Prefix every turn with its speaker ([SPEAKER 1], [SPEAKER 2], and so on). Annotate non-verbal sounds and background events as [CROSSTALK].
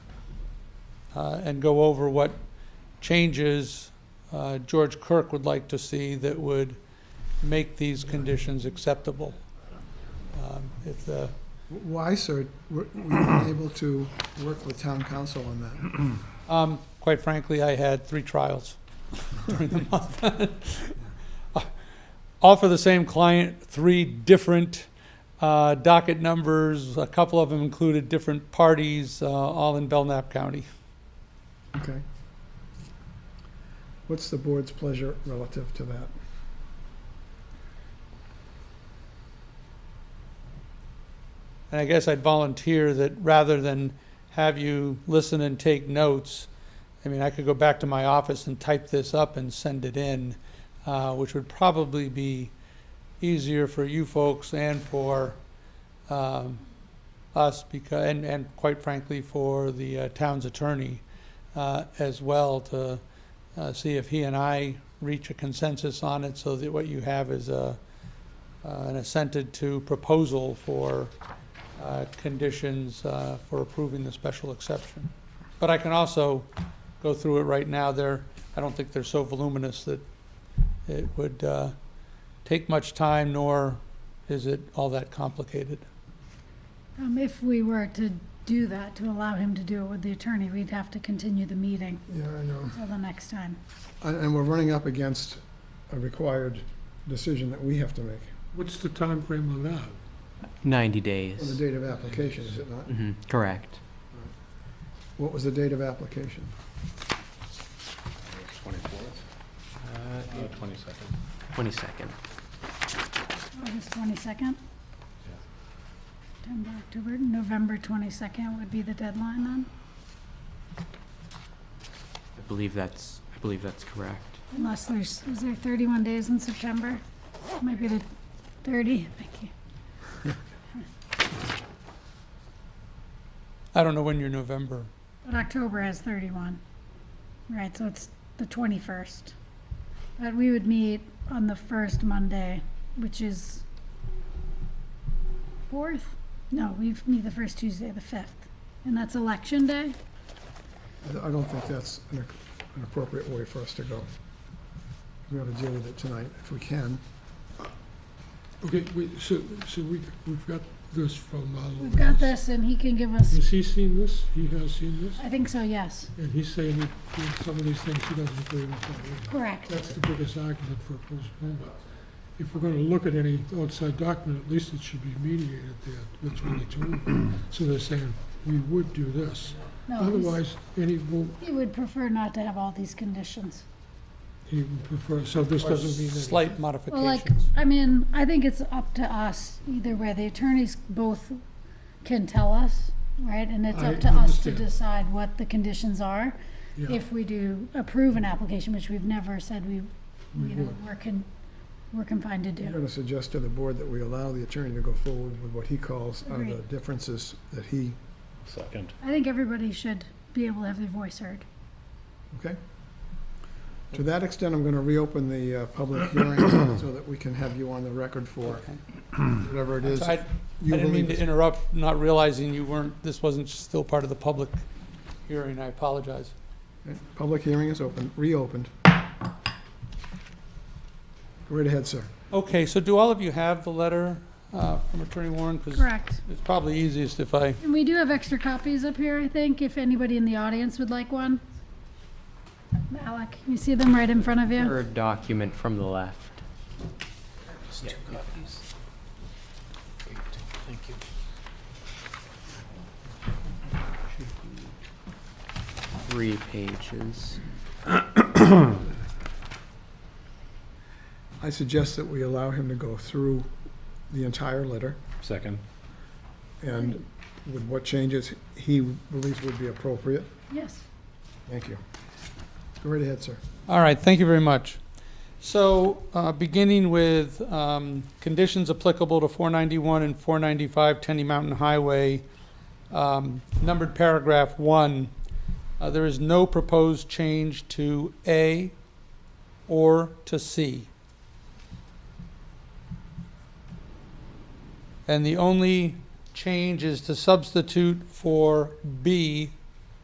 [SPEAKER 1] uh, and go over what changes uh, George Kirk would like to see that would make these conditions acceptable. Um, If the,
[SPEAKER 2] Why, sir, were were you [COUGHS] unable to work with town council on that?
[SPEAKER 1] um, quite frankly, I had three trials [LAUGHS] during the month. [LAUGHS] All for the same client, three different uh, docket numbers, a couple of them included different parties, uh, all in Belknap County.
[SPEAKER 2] Okay. What's the board's pleasure relative to that?
[SPEAKER 1] And I guess I'd volunteer that rather than have you listen and take notes, I mean, I could go back to my office and type this up and send it in, uh, which would probably be easier for you folks and for, um, us because, and, and quite frankly, for the uh, town's attorney, uh, as well to, uh, see if he and I reach a consensus on it so that what you have is a, uh, an assented to proposal for, uh, conditions uh, for approving the special exception. But I can also go through it right now. They're, I don't think they're so voluminous that it would uh, take much time, nor is it all that complicated.
[SPEAKER 3] Um, if we were to do that, to allow him to do it with the attorney, we'd have to continue the meeting
[SPEAKER 2] Yeah, I know.
[SPEAKER 3] till the next time.
[SPEAKER 2] And, and we're running up against a required decision that we have to make
[SPEAKER 4] What's the time frame on that?
[SPEAKER 5] 90
[SPEAKER 2] on the
[SPEAKER 5] days.
[SPEAKER 2] date of application, is it not?
[SPEAKER 5] hmm correct.
[SPEAKER 2] What was the date of application?
[SPEAKER 6] Twenty-fourth? Twenty-second.
[SPEAKER 5] 22nd.
[SPEAKER 3] August twenty-second? September, October, November twenty-second would be the deadline then,
[SPEAKER 5] I believe that's, I believe that's correct.
[SPEAKER 3] unless there's, is there thirty-one days in September? Maybe the thirty, thank you.
[SPEAKER 1] I don't know when your November,
[SPEAKER 3] But October has thirty-one, right, so it's the twenty-first. But we would meet on the first Monday, which is fourth? No, we meet the first Tuesday, the fifth, and that's election day?
[SPEAKER 2] I don't- I don't think that's an ac- an appropriate way for us to go. We ought to deal with it tonight if we can.
[SPEAKER 4] Okay, wait, so, so we, we've got this from, uh.
[SPEAKER 3] We've got
[SPEAKER 4] Lawrence.
[SPEAKER 3] this, and he can give us,
[SPEAKER 4] Has he seen this? He has seen this?
[SPEAKER 3] I think so, yes,
[SPEAKER 4] And he's saying that that some of these things he doesn't agree with.
[SPEAKER 3] correct.
[SPEAKER 4] That's the biggest argument for a postponement. If we're gonna look at any outside document, at least it should be mediated there between the two. So they're saying, we would do this.
[SPEAKER 3] No, he's-
[SPEAKER 4] Otherwise, any, will
[SPEAKER 3] He would prefer not to have all these conditions.
[SPEAKER 4] he would prefer, so this
[SPEAKER 1] or
[SPEAKER 4] doesn't mean anything.
[SPEAKER 1] slight
[SPEAKER 3] Well, like,
[SPEAKER 1] modifications.
[SPEAKER 3] I mean, I think it's up to us either way. The attorneys both can tell us, right? And it's
[SPEAKER 4] I
[SPEAKER 3] up to us to
[SPEAKER 4] understand.
[SPEAKER 3] decide what the conditions are.
[SPEAKER 4] Yeah.
[SPEAKER 3] If we do approve an application, which we've never said we, you know,
[SPEAKER 4] would.
[SPEAKER 3] we're con, we're confined to
[SPEAKER 2] I'm
[SPEAKER 3] do.
[SPEAKER 2] going to suggest to the board that we allow the attorney to go forward with what he calls are the
[SPEAKER 3] Agreed.
[SPEAKER 2] differences that he,
[SPEAKER 6] Second.
[SPEAKER 3] I think everybody should be able to have their voice heard.
[SPEAKER 2] okay? To that extent, I'm going to reopen the uh, public hearing so that we can have you on the record for
[SPEAKER 1] Okay.
[SPEAKER 2] whatever it
[SPEAKER 1] So
[SPEAKER 2] is
[SPEAKER 1] I, I
[SPEAKER 2] you
[SPEAKER 1] didn't mean
[SPEAKER 2] believe.
[SPEAKER 1] to
[SPEAKER 2] is-
[SPEAKER 1] interrupt, not realizing you weren't, this wasn't still part of the public hearing. I apologize.
[SPEAKER 2] Public hearing is open, reopened. Go right ahead, sir.
[SPEAKER 1] Okay, so do all of you have the letter uh, from Attorney Warren? 'Cause
[SPEAKER 3] Correct.
[SPEAKER 1] it's probably easiest if I
[SPEAKER 3] And we do have extra copies up here, I think, if anybody in the audience would like one. Alec, you see them right in front of you?
[SPEAKER 5] Third document from the left. Three pages.
[SPEAKER 2] I suggest that we allow him to go through the entire letter
[SPEAKER 6] Second.
[SPEAKER 2] and with what changes he believes would be appropriate.
[SPEAKER 3] Yes.
[SPEAKER 2] Thank you. Go right ahead, sir.
[SPEAKER 1] All right, thank you very much. So, uh, beginning with um, conditions applicable to 491 and 495 Tenny Mountain Highway, um, numbered paragraph one, uh, there is no proposed change to A or to C. And the only change is to substitute for B